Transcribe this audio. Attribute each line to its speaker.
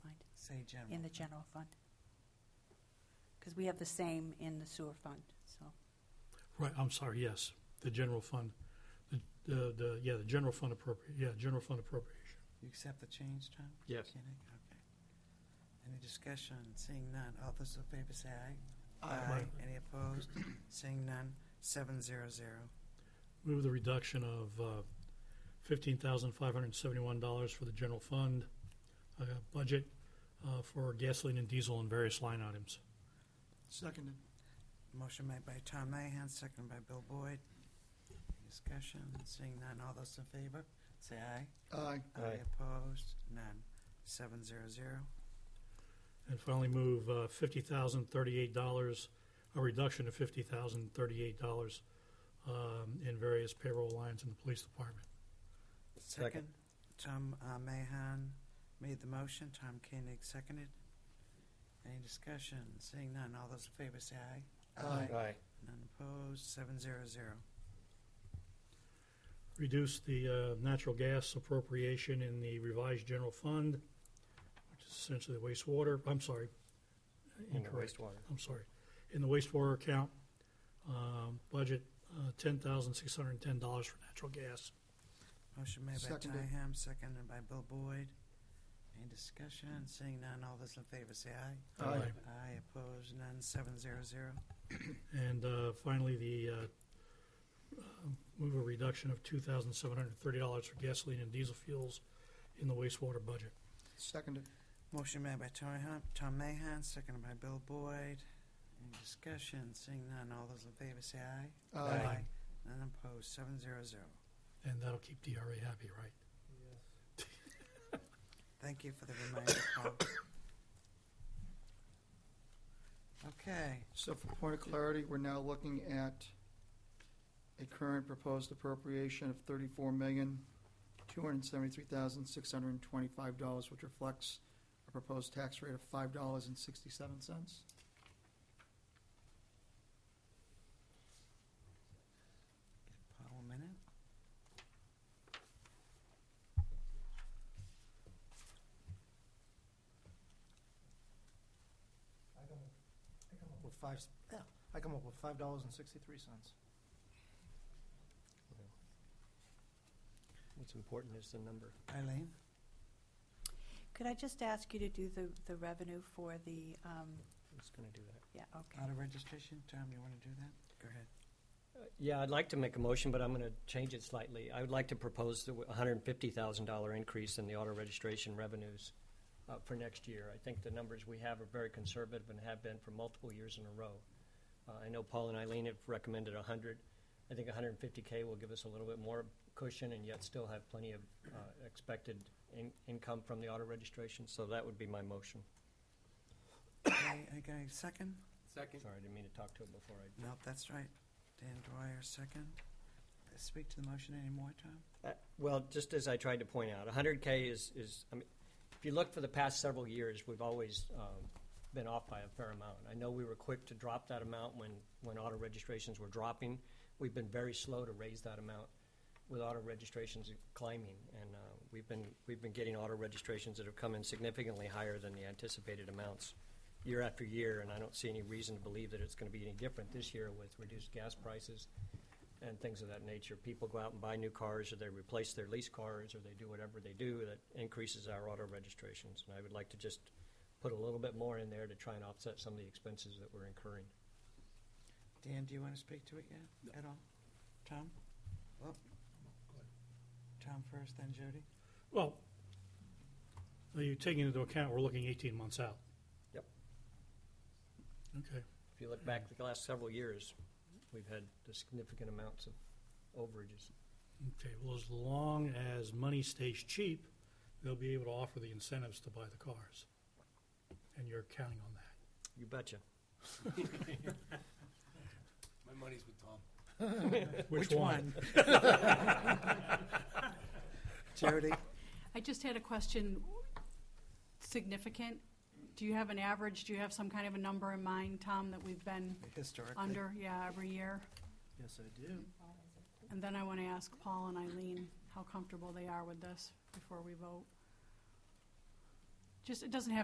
Speaker 1: say general.
Speaker 2: in the general fund. Because we have the same in the sewer fund, so.
Speaker 3: Right, I'm sorry, yes, the general fund, the, the, the yeah, the general fund appropriate, yeah, general fund appropriation.
Speaker 1: You accept the change, Tom?
Speaker 4: Yes.
Speaker 1: Kidding? Okay. Any discussion? Seeing none. All those in favor say aye.
Speaker 3: Aye.
Speaker 1: Any opposed? Seeing none. Seven zero zero.
Speaker 3: Move the reduction of uh, $15,571 for the general fund uh, budget uh, for gasoline and diesel and various line items.
Speaker 4: Seconded.
Speaker 1: Motion made by Tom Mahan, seconded by Bill Boyd. Any Discussion. Seeing none. All those in favor say aye.
Speaker 4: Aye.
Speaker 1: Aye. Opposed? None. Seven zero zero.
Speaker 3: And finally, move uh, $50,038, a reduction of $50,038 um, in various payroll lines in the police department.
Speaker 1: Second. Tom uh, Mahan made the motion. Tom Koenig seconded. Any discussion? Seeing none. All those in favor say aye.
Speaker 4: Aye.
Speaker 1: None opposed, seven zero zero.
Speaker 3: reduce the uh, natural gas appropriation in the revised general fund, which is essentially the wastewater, I'm sorry,
Speaker 4: In the
Speaker 3: incorrect,
Speaker 4: wastewater.
Speaker 3: I'm sorry, in the wastewater account, um, budget, uh, $10,610 for natural gas.
Speaker 1: Motion made by
Speaker 4: Seconded.
Speaker 1: Dyham, seconded by Bill Boyd. Any discussion? Seeing none, all those in favor say aye.
Speaker 4: Aye. Aye.
Speaker 1: Aye, opposed, none, seven zero zero.
Speaker 3: And uh, finally, the, uh, uh, move a reduction of $2,730 for gasoline and diesel fuels in the wastewater budget.
Speaker 4: Seconded.
Speaker 1: Motion made by Tom Hum- Tom Mahan, seconded by Bill Boyd. Any discussion? Seeing none, all those in favor say aye.
Speaker 3: Aye.
Speaker 1: None opposed, seven zero zero.
Speaker 3: And that'll keep DRA happy, right?
Speaker 1: Thank you for the reminder, Paul. Okay,
Speaker 5: So for point of clarity, we're now looking at a current proposed appropriation of thirty-four million, two hundred and seventy-three thousand, six hundred and twenty-five dollars, which reflects a proposed tax rate of five dollars and sixty-seven cents.
Speaker 1: Paul, a minute.
Speaker 4: I come up- I come up with five, s- yeah, I come up with five dollars and sixty-three cents.
Speaker 6: What's important is the number.
Speaker 1: Eileen?
Speaker 2: Could I just ask you to do the, the revenue for the, um,
Speaker 6: Who's going to do that?
Speaker 2: yeah, okay.
Speaker 1: Out of registration, Tom, you want to do that? Go ahead.
Speaker 6: Uh, Yeah, I'd like to make a motion, but I'm going to change it slightly. I would like to propose the $150,000 increase in the auto registration revenues uh, for next year. I think the numbers we have are very conservative and have been for multiple years in a row. Uh, I know Paul and Eileen have recommended 100. I think 150K will give us a little bit more cushion and yet still have plenty of uh, expected in- income from the auto registration, so that would be my motion.
Speaker 1: Okay, I got a second?
Speaker 6: Sorry, I didn't mean to talk to it before I
Speaker 1: Nope, that's right. Dan Dwyer, second. Speak to the motion anymore, Tom?
Speaker 6: Uh, Well, just as I tried to point out, 100K is, is, I mean, if you look for the past several years, we've always um, been off by a fair amount. I know we were quick to drop that amount when, when auto registrations were dropping. We've been very slow to raise that amount with auto registrations climbing. And uh, we've been, we've been getting auto registrations that have come in significantly higher than the anticipated amounts year after year. And I don't see any reason to believe that it's going to be any different this year with reduced gas prices and things of that nature. People go out and buy new cars, or they replace their lease cars, or they do whatever they do that increases our auto registrations. And I would like to just put a little bit more in there to try and offset some of the expenses that we're incurring.
Speaker 1: Dan, do you want to speak to it yet, at all? Tom? Oh. Tom first, then Jody?
Speaker 3: Well, are you taking into account, we're looking 18 months out?
Speaker 6: Yep.
Speaker 3: Okay.
Speaker 6: If you look back the last several years, we've had significant amounts of overages.
Speaker 3: Okay, well, as long as money stays cheap, they'll be able to offer the incentives to buy the cars. And you're counting on that.
Speaker 6: You betcha.
Speaker 7: My money's with Tom.
Speaker 1: Jody?
Speaker 8: I just had a question, significant, do you have an average, do you have some kind of a number in mind, Tom, that we've been
Speaker 1: Historically?
Speaker 8: under, yeah, every year?
Speaker 4: Yes, I do.
Speaker 8: And then I want to ask Paul and Eileen how comfortable they are with this before we vote. Just, it doesn't have